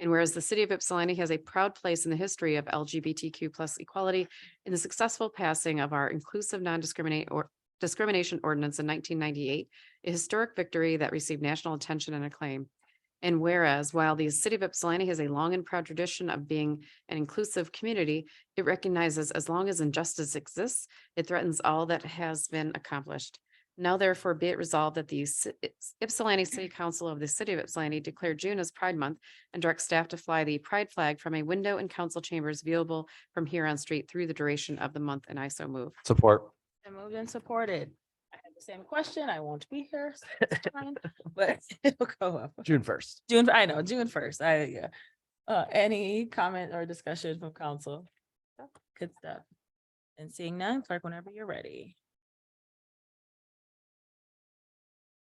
And whereas the city of Ypsilanti has a proud place in the history of LGBTQ equality in the successful passing of our inclusive non-discriminate or discrimination ordinance in nineteen ninety-eight, a historic victory that received national attention and acclaim. And whereas while the city of Ypsilanti has a long and proud tradition of being an inclusive community, it recognizes as long as injustice exists, it threatens all that has been accomplished. Now therefore be it resolved that the Yps- Ypsilanti City Council of the City of Ypsilanti declare June as Pride Month and direct staff to fly the pride flag from a window in council chambers viewable from Huron Street through the duration of the month, and I so move. Support. Been moved and supported. I had the same question. I won't be here. so it's fine, But it'll go up. June first. June, I know, June first. I, yeah. Uh, any comment or discussion from council? Good stuff. And seeing none, clerk, whenever you're ready.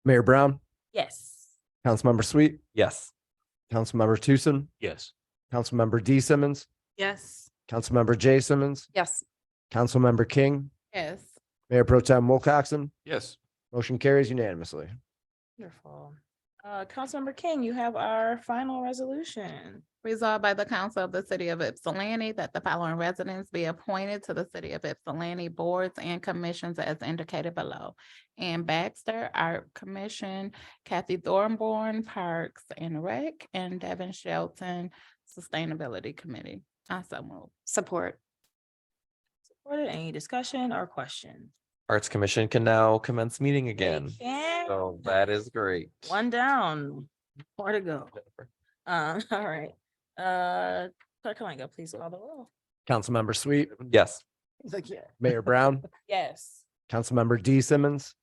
Mayor Brown, Yes. Councilmember Sweet, Yes. Councilmember Tucson, Yes. Councilmember D Simmons, Yes. Councilmember J Simmons, Yes. Councilmember King, Yes. Mayor Pro Tem Wilcoxen. Yes. Motion carries unanimously. Wonderful. Uh, Councilmember King, you have our final resolution. Resolved by the Council of the City of Ypsilanti that the following residents be appointed to the City of Ypsilanti boards and commissions as indicated below. Ann Baxter, Art Commission, Kathy Thornborn, Parks and Rec, and Devin Shelton, Sustainability Committee. Also move. Support. Supported, any discussion or question? Arts Commission can now commence meeting They again. can- So that is great. One down, more to go. Jennifer. Um, all right, uh, clerk Kalanga, please call the roll. Councilmember Sweet, Yes. Like, yeah. Mayor Brown, Yes. Councilmember D Simmons,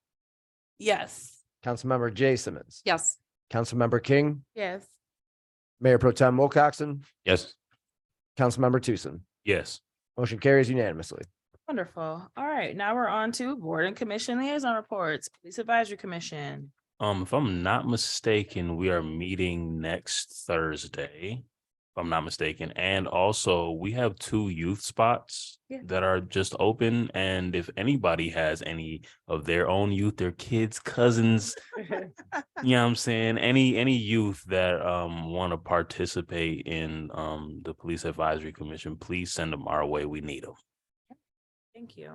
Yes. Councilmember J Simmons. Yes. Councilmember King, Yes. Mayor Pro Tem Wilcoxen, Yes. Councilmember Tucson. Yes. Motion carries unanimously. Wonderful. All right, now we're on to board and commission liaison reports, police advisory commission. Um, if I'm not mistaken, we are meeting next Thursday, if I'm not mistaken, and also we have two youth spots Yeah. that are just open, and if anybody has any of their own youth, their kids, cousins, you know what I'm saying, any, any youth that um want to participate in um the Police Advisory Commission, please send them our way. We need them. Thank you.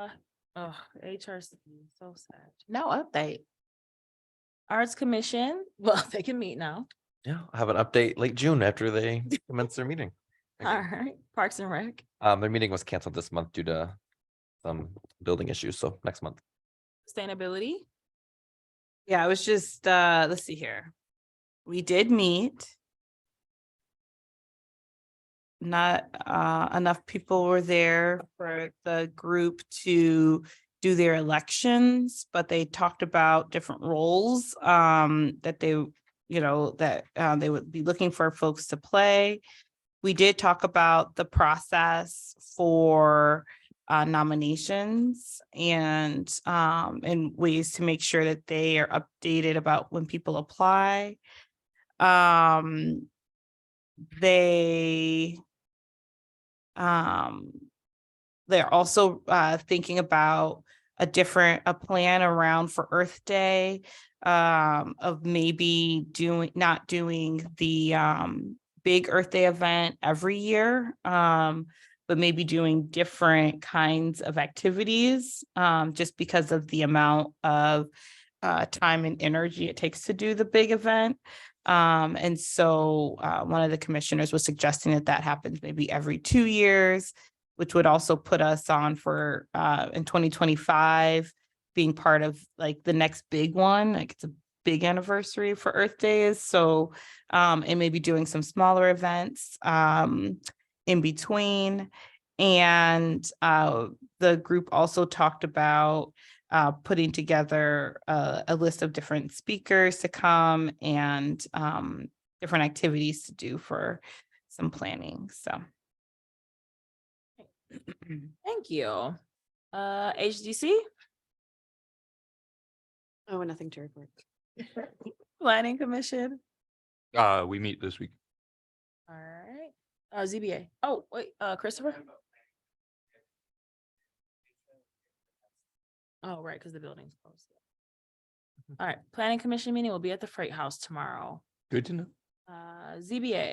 Uh, Oh, HRC, so sad. No update. Arts Commission, well, they can meet now. Yeah, I'll have an update late June after they commence their meeting. All Thank you. right, Parks and Rec. Um, their meeting was canceled this month due to some building issues, so next month. Sustainability? Yeah, I was just, uh, let's see here. We did meet. Not, uh, enough people were there for the group to do their elections, but they talked about different roles, um, that they, you know, that, uh, they would be looking for folks to play. We did talk about the process for, uh, nominations and, um, and ways to make sure that they are updated about when people apply. Um, they, um, they're also, uh, thinking about a different, a plan around for Earth Day, um, of maybe doing, not doing the, um, big Earth Day event every year. Um, but maybe doing different kinds of activities um, just because of the amount of uh, time and energy it takes to do the big event. Um, and so uh, one of the commissioners was suggesting that that happens maybe every two years, which would also put us on for uh, in 2025 being part of like the next big one. Like it's a big anniversary for Earth Day is so um, and maybe doing some smaller events. Um, in between. And uh, the group also talked about uh, putting together uh, a list of different speakers to come and um, different activities to do for some planning. So. Thank you. Uh, HDC, Oh, nothing to report. Planning Commission. Uh, we meet this week. All right, uh, ZBA. Oh, wait, uh, Christopher? Oh, right, because the building's closed. All right, Planning Commission meeting will be at the Freight House tomorrow. Good to know. Uh, ZBA.